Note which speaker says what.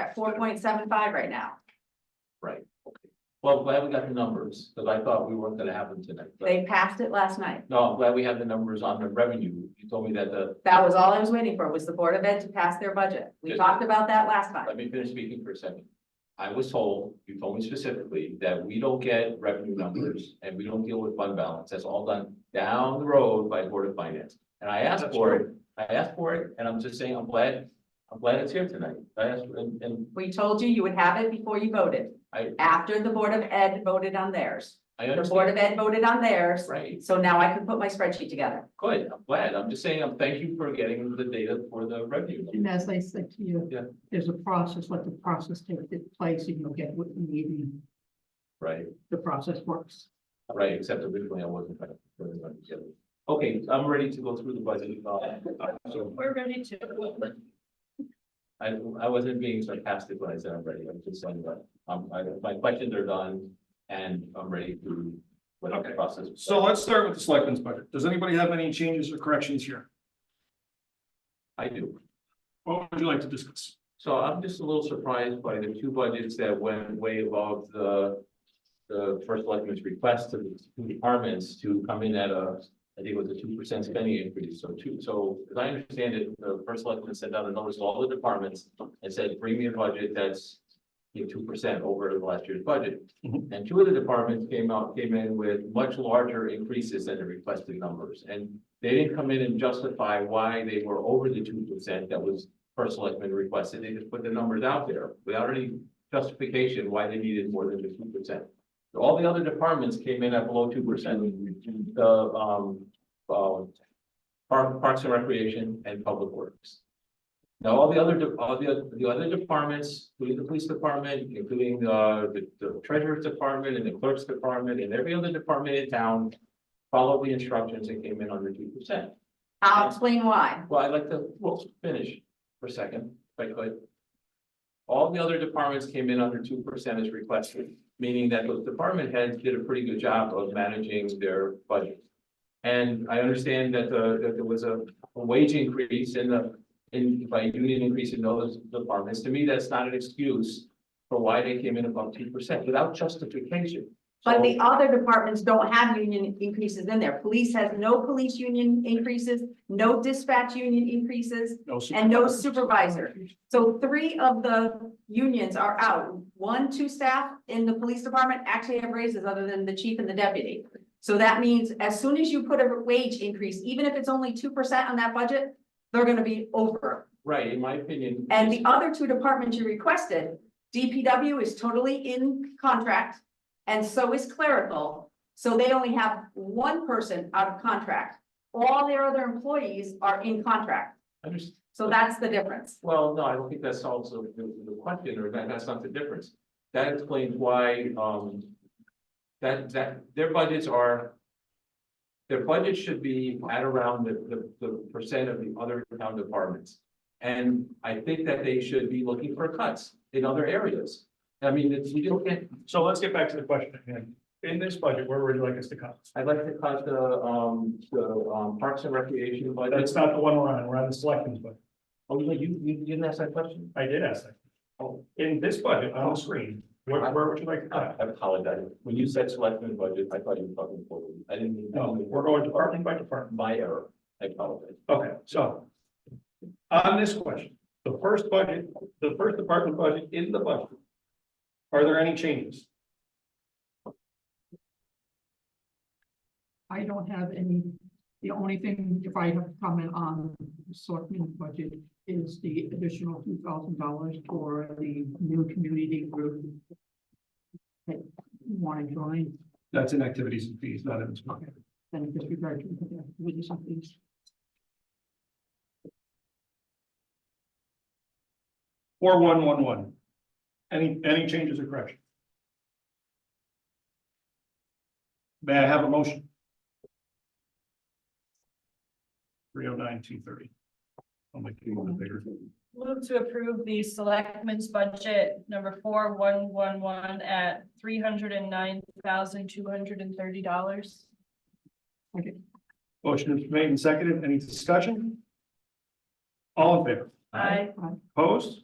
Speaker 1: at four point seven five right now.
Speaker 2: Right, okay. Well, I'm glad we got the numbers, because I thought we weren't gonna have them tonight. but-
Speaker 1: They passed it last night.
Speaker 2: No, I'm glad we have the numbers on the revenue. You told me that the,
Speaker 1: That was all I was waiting for, was the Board of Ed to pass their budget. We
Speaker 2: Good.
Speaker 1: talked about that last time.
Speaker 2: let me finish speaking for a second. I was told, you told me specifically, that we don't get revenue numbers and we don't deal with fund balance. That's all done down the road by Board of Finance. And I asked
Speaker 3: That's
Speaker 2: for it, I asked for it, and I'm just saying, I'm glad, I'm glad it's here tonight. I asked, and, and
Speaker 1: We told you you would have it before you voted,
Speaker 2: I,
Speaker 1: after the Board of Ed voted on theirs.
Speaker 2: I
Speaker 1: The Board
Speaker 2: understand.
Speaker 1: of Ed voted on theirs,
Speaker 2: Right,
Speaker 1: so now I can put my spreadsheet together.
Speaker 2: good, I'm glad. I'm just saying, I'm, thank you for getting the data for the revenue. numbers.
Speaker 3: And as I said to you.
Speaker 2: Yeah.
Speaker 3: There's a process, let the process take its place and you'll get what you need and
Speaker 2: Right.
Speaker 3: the process works.
Speaker 2: Right, except originally I wasn't trying to. put it on together. Okay, I'm ready to go through the budget. uh, so
Speaker 4: We're ready to.
Speaker 2: I, I wasn't being sarcastic when I said I'm ready, I'm just saying that, um, I, my questions are done and I'm ready to. Whatever the
Speaker 5: Okay.
Speaker 2: process.
Speaker 5: So let's start with the selectmen's budget. Does anybody have any changes or corrections here?
Speaker 2: I do,
Speaker 5: What would you like to discuss?
Speaker 2: so I'm just a little surprised by the two budgets that went way above the. The first selectman's request to the two departments to come in at a, I think it was a two percent spending increase, so two, so as I understand it, the first selectman sent out a notice to all the departments. And said, bring me a budget that's two percent over the last year's budget.
Speaker 5: Mhm.
Speaker 2: And two of the departments came out, came in with much larger increases than the requested numbers. And they didn't come in and justify why they were over the two percent that was first selectman requested. They just put the numbers out there without any justification why they needed more than the two percent. All the other departments came in at below two percent. The, um, uh, Park- Parks and Recreation and Public Works. Now, all the other, de- all the, the other departments, including the police department, including uh, the, the treasurer's department and the clerk's department and every other department in town. Followed the instructions and came in under two percent.
Speaker 1: I'll explain why.
Speaker 2: Well, I'd like to, well, finish for a second, if I could. All the other departments came in under two percent as requested, meaning that those department heads did a pretty good job of managing their budget. And I understand that the, that there was a a wage increase in the, in, by union increase in those departments. To me, that's not an excuse for why they came in above two percent without justification.
Speaker 1: But
Speaker 2: So-
Speaker 1: the other departments don't have union increases in there. Police has no police union increases, no dispatch union increases. And no supervisor. So three of the unions are out. One, two staff in the police department actually have raises other than the chief and the deputy. So that means as soon as you put a wage increase, even if it's only two percent on that budget, they're gonna be over.
Speaker 2: Right, in my opinion.
Speaker 1: And the other two departments you requested, DPW is totally in contract and so is clerical. So they only have one person out of contract. All their other employees are in contract.
Speaker 2: I Understand.
Speaker 1: So that's the difference.
Speaker 2: Well, no, I don't think that solves the, the the question, or that, that's not the difference. That explains why, um, that, that, their budgets are, their budget should be at around the, the, the percent of the other town departments. And I think that they should be looking for cuts in other areas. I mean, it's, you don't get,
Speaker 5: So let's get back to the question at hand. In this budget, where would you like us to cut?
Speaker 2: I'd like to cut the, um, the, um, Parks and Recreation budget.
Speaker 5: That's not the one we're on, we're on the selectmen's budget.
Speaker 2: Oh, you, you you didn't ask that question?
Speaker 5: I did ask that. Oh, in this budget on the screen, where, where would you like to
Speaker 2: I
Speaker 5: cut?
Speaker 2: I apologize. When you said selectmen budget, I thought you were talking forward. I didn't. mean-
Speaker 5: No, we're going department by department.
Speaker 2: My error. I apologize.
Speaker 5: Okay, so. On this question, the first budget, the first department budget in the budget. Are there any changes?
Speaker 3: I don't have any, the only thing, if I have to comment on the selectmen's budget, is the additional two thousand dollars for the new community group. That want to join,
Speaker 5: That's in activities and fees, not in.
Speaker 3: then disregard to, with something.
Speaker 5: Four one one one. Any, any changes or corrections? May I have a motion? Three oh nine, two thirty. I'll make it a little bit bigger.
Speaker 4: Move to approve the selectmen's budget number four one one one at three hundred and nine thousand two hundred and thirty dollars.
Speaker 5: Motion is made and seconded. Any discussion? All in favor?
Speaker 4: I
Speaker 5: Opposed?